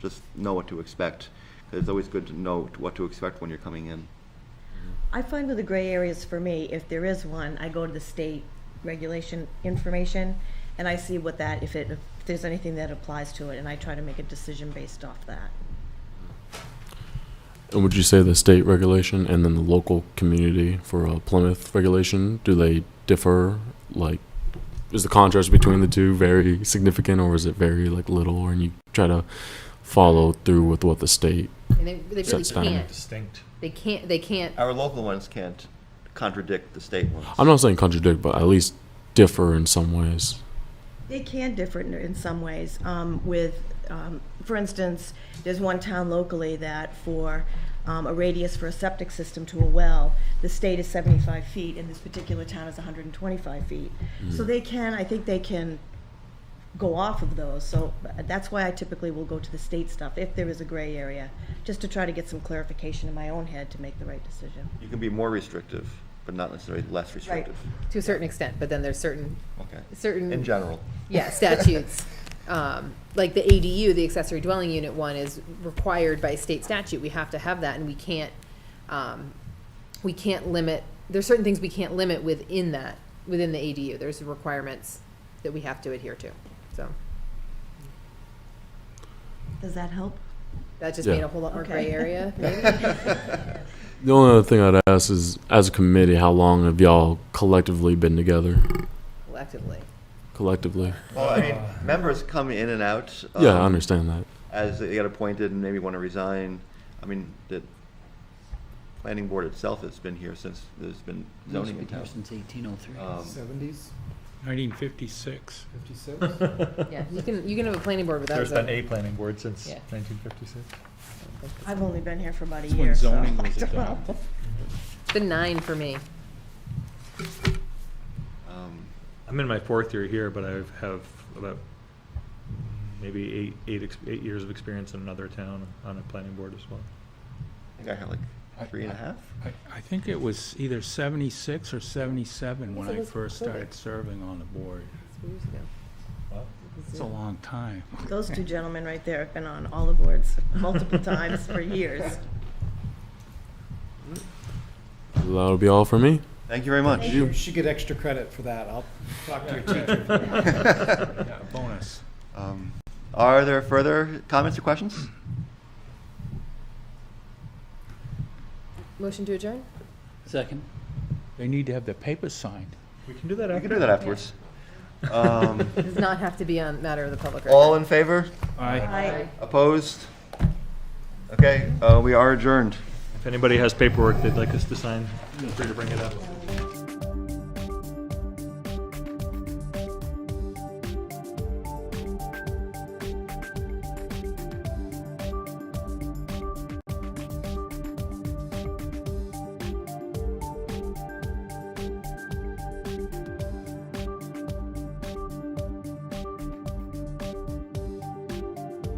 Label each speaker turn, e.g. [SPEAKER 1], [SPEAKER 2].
[SPEAKER 1] just know what to expect. 'Cause It's always good to know what to expect when you're coming in.
[SPEAKER 2] I find with the gray areas for me, if there is one, I go to the state regulation information and I see what that, if it, if there's anything that applies to it, and I try to make a decision based off that.
[SPEAKER 3] And would you say the state regulation and then the local community for uh, Plymouth regulation, do they differ? Like, is the contrast between the two very significant or is it very like little and you try to follow through with what the state?
[SPEAKER 4] And they, they really
[SPEAKER 3] Sets down.
[SPEAKER 4] can't.
[SPEAKER 5] distinct.
[SPEAKER 4] They can't. They can't.
[SPEAKER 1] Our local ones can't contradict the state ones.
[SPEAKER 3] I'm not saying contradict, but at least differ in some ways.
[SPEAKER 2] They can differ in- in some ways um, with, um, for instance, there's one town locally that for um, a radius for a septic system to a well, the state is 75 feet and this particular town is 125 feet. So
[SPEAKER 5] Mm.
[SPEAKER 2] they can, I think they can go off of those. So uh, that's why I typically will go to the state stuff if there is a gray area, just to try to get some clarification in my own head to make the right decision.
[SPEAKER 1] You can be more restrictive, but not necessarily less restrictive.
[SPEAKER 4] to a certain extent, but then there's certain,
[SPEAKER 1] Okay.
[SPEAKER 4] certain.
[SPEAKER 1] In general.
[SPEAKER 4] Yeah, statutes. Um, Like the ADU, the accessory dwelling unit one is required by state statute. We have to have that and we can't, um, we can't limit, there's certain things we can't limit within that, within the ADU. There's requirements that we have to adhere to. So
[SPEAKER 2] Does that help?
[SPEAKER 4] that just
[SPEAKER 3] Yeah.
[SPEAKER 4] made a whole lot more gray
[SPEAKER 2] Okay.
[SPEAKER 4] area.
[SPEAKER 3] The only other thing I'd ask is, as a committee, how long have y'all collectively been together?
[SPEAKER 4] Collectively.
[SPEAKER 3] Collectively?
[SPEAKER 1] Well, I mean, members come in and out.
[SPEAKER 3] Yeah, I
[SPEAKER 1] um,
[SPEAKER 3] understand that.
[SPEAKER 1] As they get appointed and maybe want to resign. I mean, the planning board itself has been here since there's been
[SPEAKER 6] He's
[SPEAKER 1] zoning in
[SPEAKER 6] been here
[SPEAKER 1] town.
[SPEAKER 6] since 1803.
[SPEAKER 1] Um,
[SPEAKER 7] 70s,
[SPEAKER 5] 1956.
[SPEAKER 7] 56?
[SPEAKER 4] Yeah, you can, you can have a planning board without.
[SPEAKER 5] There's been
[SPEAKER 4] zoning.
[SPEAKER 5] a planning board since
[SPEAKER 4] Yeah.
[SPEAKER 5] 1956.
[SPEAKER 2] I've only been here for about a
[SPEAKER 5] That's when
[SPEAKER 2] year, so.
[SPEAKER 5] zoning was
[SPEAKER 2] I don't know.
[SPEAKER 5] adopted.
[SPEAKER 4] It's been nine for me.
[SPEAKER 1] um,
[SPEAKER 5] I'm in my fourth year here, but I have about maybe eight, eight, ex- eight years of experience in another town on a planning board as well.
[SPEAKER 1] I think I had like three and a half.
[SPEAKER 8] I, I think it was either seventy-six or seventy-seven when
[SPEAKER 4] Yes, it
[SPEAKER 8] I
[SPEAKER 4] was
[SPEAKER 8] first
[SPEAKER 4] COVID.
[SPEAKER 8] started serving on the board.
[SPEAKER 4] It's years ago.
[SPEAKER 8] It's a long time.
[SPEAKER 2] Those two gentlemen right there have been on all the boards multiple times for years.
[SPEAKER 3] That'll be all for me.
[SPEAKER 1] Thank you very much.
[SPEAKER 7] You should get extra credit for that. I'll talk to your teacher.
[SPEAKER 8] Yeah, bonus.
[SPEAKER 1] Um, Are there further comments or questions?
[SPEAKER 4] Motion to adjourn?
[SPEAKER 6] Second.
[SPEAKER 8] They need to have their papers signed.
[SPEAKER 5] We can do that
[SPEAKER 1] You
[SPEAKER 5] after.
[SPEAKER 1] can do that afterwards. Um,
[SPEAKER 4] Does not have to be on matter of the public record.
[SPEAKER 1] All in favor?
[SPEAKER 2] Aye.
[SPEAKER 1] Opposed? Okay, uh, we are adjourned.
[SPEAKER 5] If anybody has paperwork they'd like us to sign, feel free to bring it up.